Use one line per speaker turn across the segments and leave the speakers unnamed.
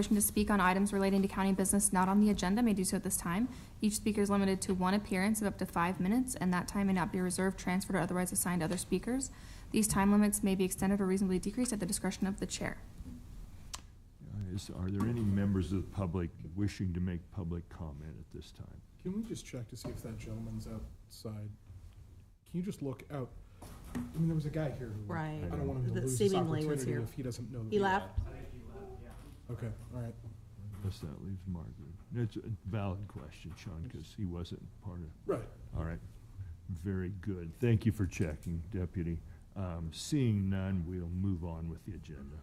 Motion to speak on items relating to county business not on the agenda may do so at this time. Each speaker is limited to one appearance of up to five minutes, and that time may not be reserved, transferred, or otherwise assigned to other speakers. These time limits may be extended or reasonably decreased at the discretion of the chair.
Uh, Is, are there any members of the public wishing to make public comment at this time?
Can we just check to see if that gentleman's outside? Can you just look out? I mean, there was a guy here who.
Right.
I don't want him to
That
lose this
seemingly was
opportunity
here.
if he doesn't know. that
He
we-
left?
Okay, all right.
Unless that leaves Margaret. It's a valid question, Sean, because he wasn't part of,
Right.
all right. Very good. Thank you for checking, Deputy. Um, seeing none, we'll move on with the agenda.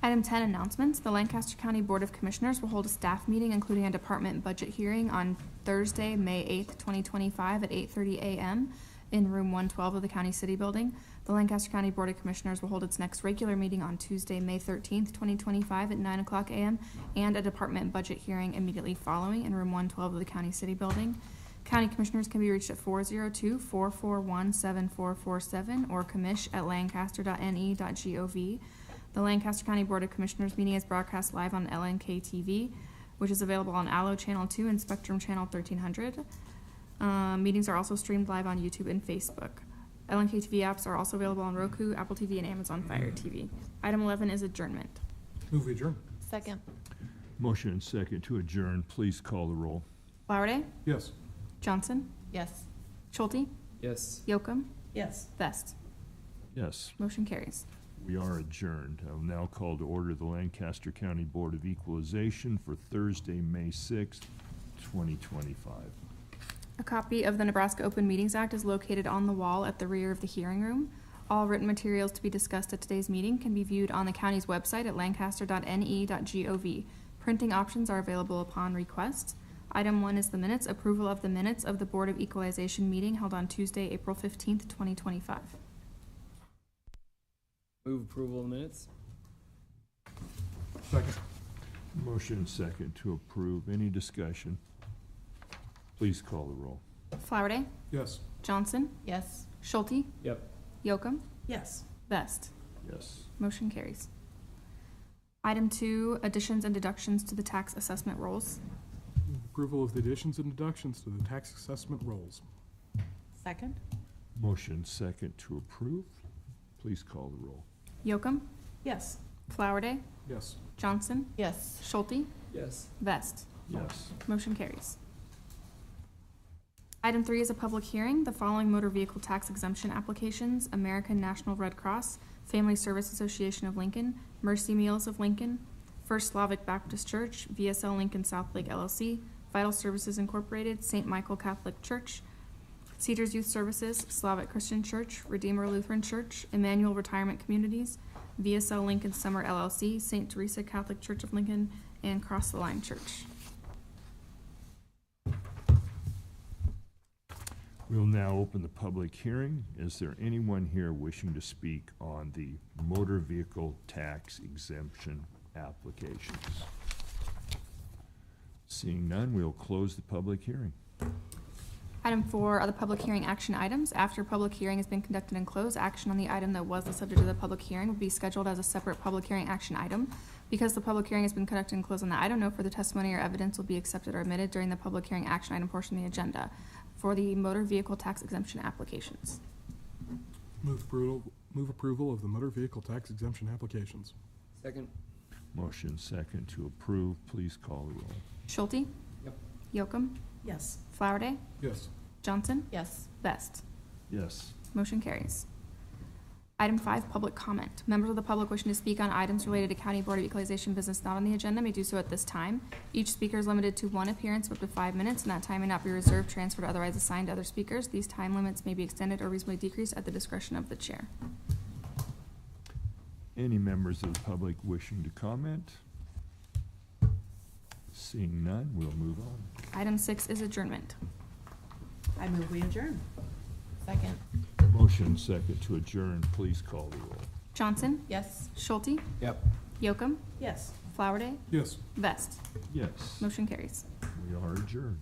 Item ten, announcements. The Lancaster County Board of Commissioners will hold a staff meeting, including a department budget hearing on Thursday, May eighth, twenty twenty-five at eight thirty AM in room one twelve of the county city building. The Lancaster County Board of Commissioners will hold its next regular meeting on Tuesday, May thirteenth, twenty twenty-five at nine o'clock AM and a department budget hearing immediately following in room one twelve of the county city building. County Commissioners can be reached at 402-441-7447 or commish at E lancaster.ne.gov. The Lancaster County Board of Commissioners meeting is broadcast live on LNK TV, which is available on Allo Channel Two and Spectrum Channel thirteen hundred. Um, meetings are also streamed live on YouTube and Facebook. LNK TV apps are also available on Roku, Apple TV, and Amazon Fire TV. Item eleven is adjournment.
Move we adjourn.
Second.
Motion and second to adjourn. Please call the roll.
Flowerday,
Yes.
Johnson,
Yes.
Schulte,
Yes.
Yocum,
Yes.
Vest.
Yes,
Motion carries.
we are adjourned. I will now call to order the Lancaster County Board of Equalization for Thursday, May sixth, twenty twenty-five.
A copy of the Nebraska Open Meetings Act is located on the wall at the rear of the hearing room. All written materials to be discussed at today's meeting can be viewed on the county's website at lancaster.ne.gov. Printing options are available upon request. Item one is the minutes, approval of the minutes of the Board of Equalization meeting held on Tuesday, April fifteenth, twenty twenty-five.
Move approval of minutes?
Second.
Motion second to approve. Any discussion? Please call the roll.
Flowerday,
Yes.
Johnson,
Yes.
Schulte,
Yep.
Yocum,
Yes.
Vest.
Yes.
Motion carries. Item two, additions and deductions to the tax assessment rolls.
Move Approval of the additions and deductions to the tax assessment rolls.
Second?
Motion second to approve. Please call the roll.
Yocum,
Yes.
Flowerday,
Yes.
Johnson,
Yes.
Schulte,
Yes.
Vest.
Yes.
Motion carries. Item three is a public hearing. The following motor vehicle tax exemption applications, American National Red Cross, Family Service Association of Lincoln, Mercy Meals of Lincoln, First Slavic Baptist Church, VSL Lincoln South Lake LLC, Vital Services Incorporated, St. Michael Catholic Church, Cedars Youth Services, Slavic Christian Church, Redeemer Lutheran Church, Emmanuel Retirement Communities, VSL Lincoln Summer LLC, St. Teresa Catholic Church of Lincoln, and Cross the Line Church.
We'll now open the public hearing. Is there anyone here wishing to speak on the motor vehicle tax exemption applications? Seeing none, we'll close the public hearing.
Item four are the public hearing action items. After public hearing has been conducted and closed, action on the item that was the subject of the public hearing would be scheduled as a separate public hearing action item. Because the public hearing has been conducted and closed on the item, no further testimony or evidence will be accepted or admitted during the public hearing action item portion of the agenda for the motor vehicle tax exemption applications.
Move approval, move approval of the motor vehicle tax exemption applications.
Second?
Motion second to approve. Please call the roll.
Schulte?
Yep.
Yocum?
Yes.
Flowerday?
Yes.
Johnson?
Yes.
Best.
Yes.
Motion carries. Item five, public comment. Members of the public wishing to speak on items related to County Board of Equalization business not on the agenda may do so at this time. Each speaker is limited to one appearance of up to five minutes, and that time may not be reserved, transferred, or otherwise assigned to other speakers. These time limits may be extended or reasonably decreased at the discretion of the chair.
Any members of the public wishing to comment? Seeing none, we'll move on.
Item six is adjournment.
I move we adjourn. Second?
Motion second to adjourn, please call the roll.
Johnson,
Yes.
Schulte,
Yep.
Yocum,
Yes.
Flowerday,
Yes.
Vest.
Yes,
Motion carries.
we are adjourned.